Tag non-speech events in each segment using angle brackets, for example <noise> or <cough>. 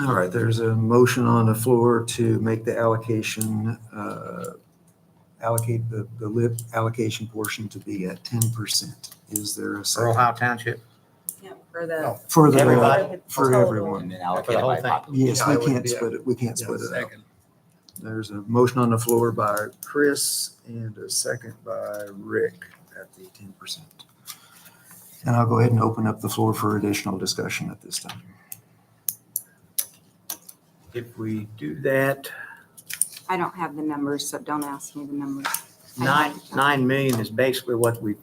All right, there's a motion on the floor to make the allocation, uh, allocate the, the lip allocation portion to be at ten percent. Is there a for second? Ohio Township. Yeah, for the. For the, Everybody. for everyone. And then For allocate the it whole by thing. pop. Yes, Yeah, I we would can't be- split it, we can't Yeah, split it up. second. There's a motion on the floor by Chris and a second by Rick at the ten percent. And I'll go ahead and open up the floor for additional discussion at this time. If we do that, I don't have the numbers, so don't ask me the numbers. nine, nine million is basically what we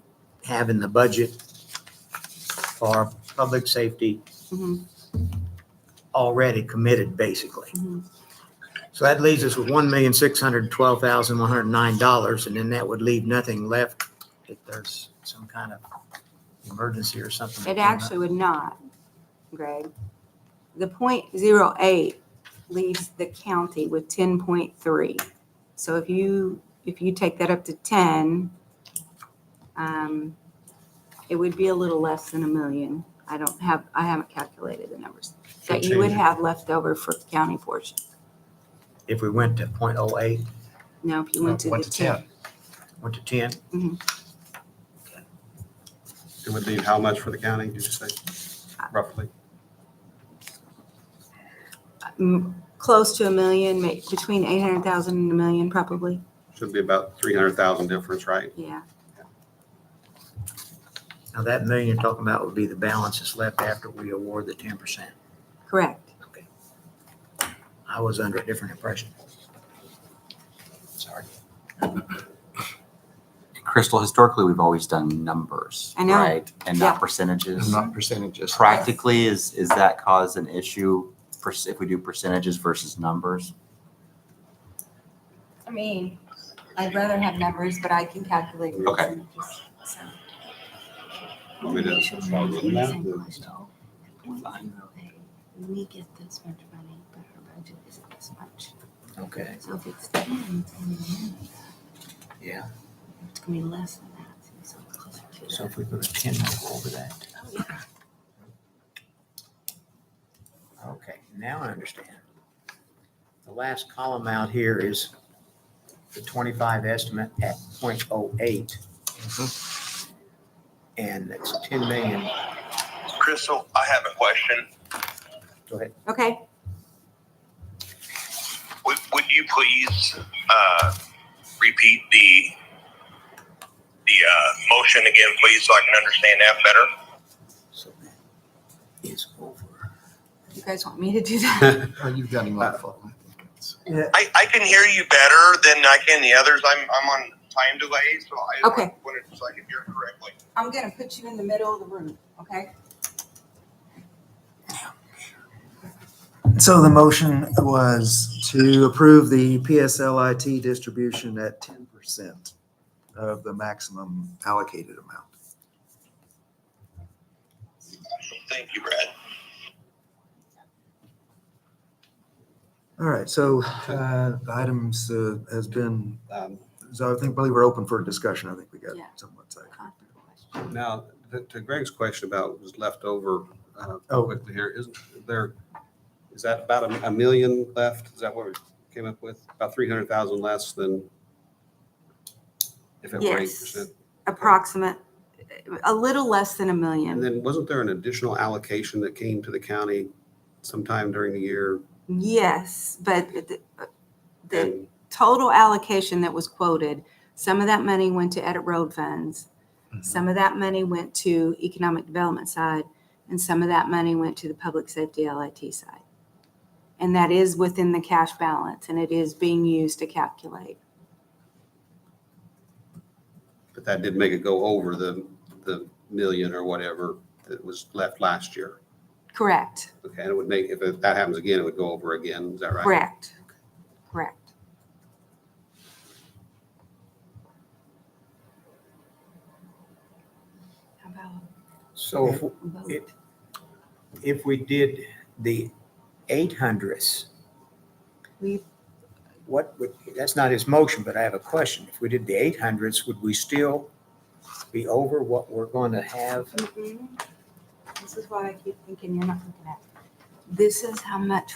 have in the budget for public safety Mhm, already committed, basically. mhm. So that leaves us with one million, six hundred twelve thousand, one hundred nine dollars, and then that would leave nothing left if there's some kind of emergency or something. It actually would not, Greg. The point zero eight leaves the county with ten point three. So if you, if you take that up to ten, um, it would be a little less than a million. I don't have, I haven't calculated the numbers that you would have left over for the county portion. If we went to point oh eight, Now, if you went to the Went to ten. 10. went to ten, It would leave how much for the county, did you say, roughly? m- close to a million, ma- between 800,000 and a million probably. Should be about 300,000 difference, right? Yeah. now that million you're talking about would be the balance that's left after we award the ten percent. Correct. I was under a different impression. Sorry. Crystal, historically, we've always done numbers, I know. right? And not Yeah. percentages. It's not percentages. Practically, is, is that cause an issue for, s- if we do percentages versus numbers? I mean, I'd rather have numbers, but I can calculate. Okay. Want me to start with that? We get this much money, but our budget isn't this much. Okay, So if it's ten, it's gonna be- yeah. it's gonna be less than that. So it's closer to So if we put a ten over that. Okay, now I understand. The last column out here is the twenty-five estimate at 0.08, and it's ten million. Crystal, I have a question. Go ahead. Okay, Would, would you please uh, repeat the the uh, motion again, please, so I can understand that better? So that is over. you guys want me to do <laughs> that? Oh, you've got him on the phone. I, I can hear you better than I can the others. I'm I'm on time delay, so I Okay. wanted so I can hear it correctly. I'm gonna put you in the middle of the room, okay? So the motion was to approve the PSLIT distribution at ten percent of the maximum allocated amount. Thank you, Brad. All right, so uh, the items uh, has been, <laughs> Um, so I think, believe we're open for discussion. I think we got Yeah. somewhat second. Now, th- to Greg's question about what was left over uh, Oh. quickly here, isn't there, is that about a- a million left? Is that what we came up with? About 300,000 less than if it were Yes. 8%? Approximate, a little less than a And million. then wasn't there an additional allocation that came to the county sometime during the year? Yes, but the, the And total allocation that was quoted, some of that money went to edit road funds. Some of that money went to economic development side and some of that money went to the public safety LIT side. And that is within the cash balance and it is being used to calculate. But that did make it go over the, the million or whatever that was left last year. Correct, Okay, and it would make, if it- that happens again, it would go over again, is that right? correct, correct. How about So if vote? It- if we did the eight hundredths, We- what would, that's not his motion, but I have a question. If we did the eight hundredths, would we still be over what we're going to have? This is why I keep thinking you're not looking at. This is how much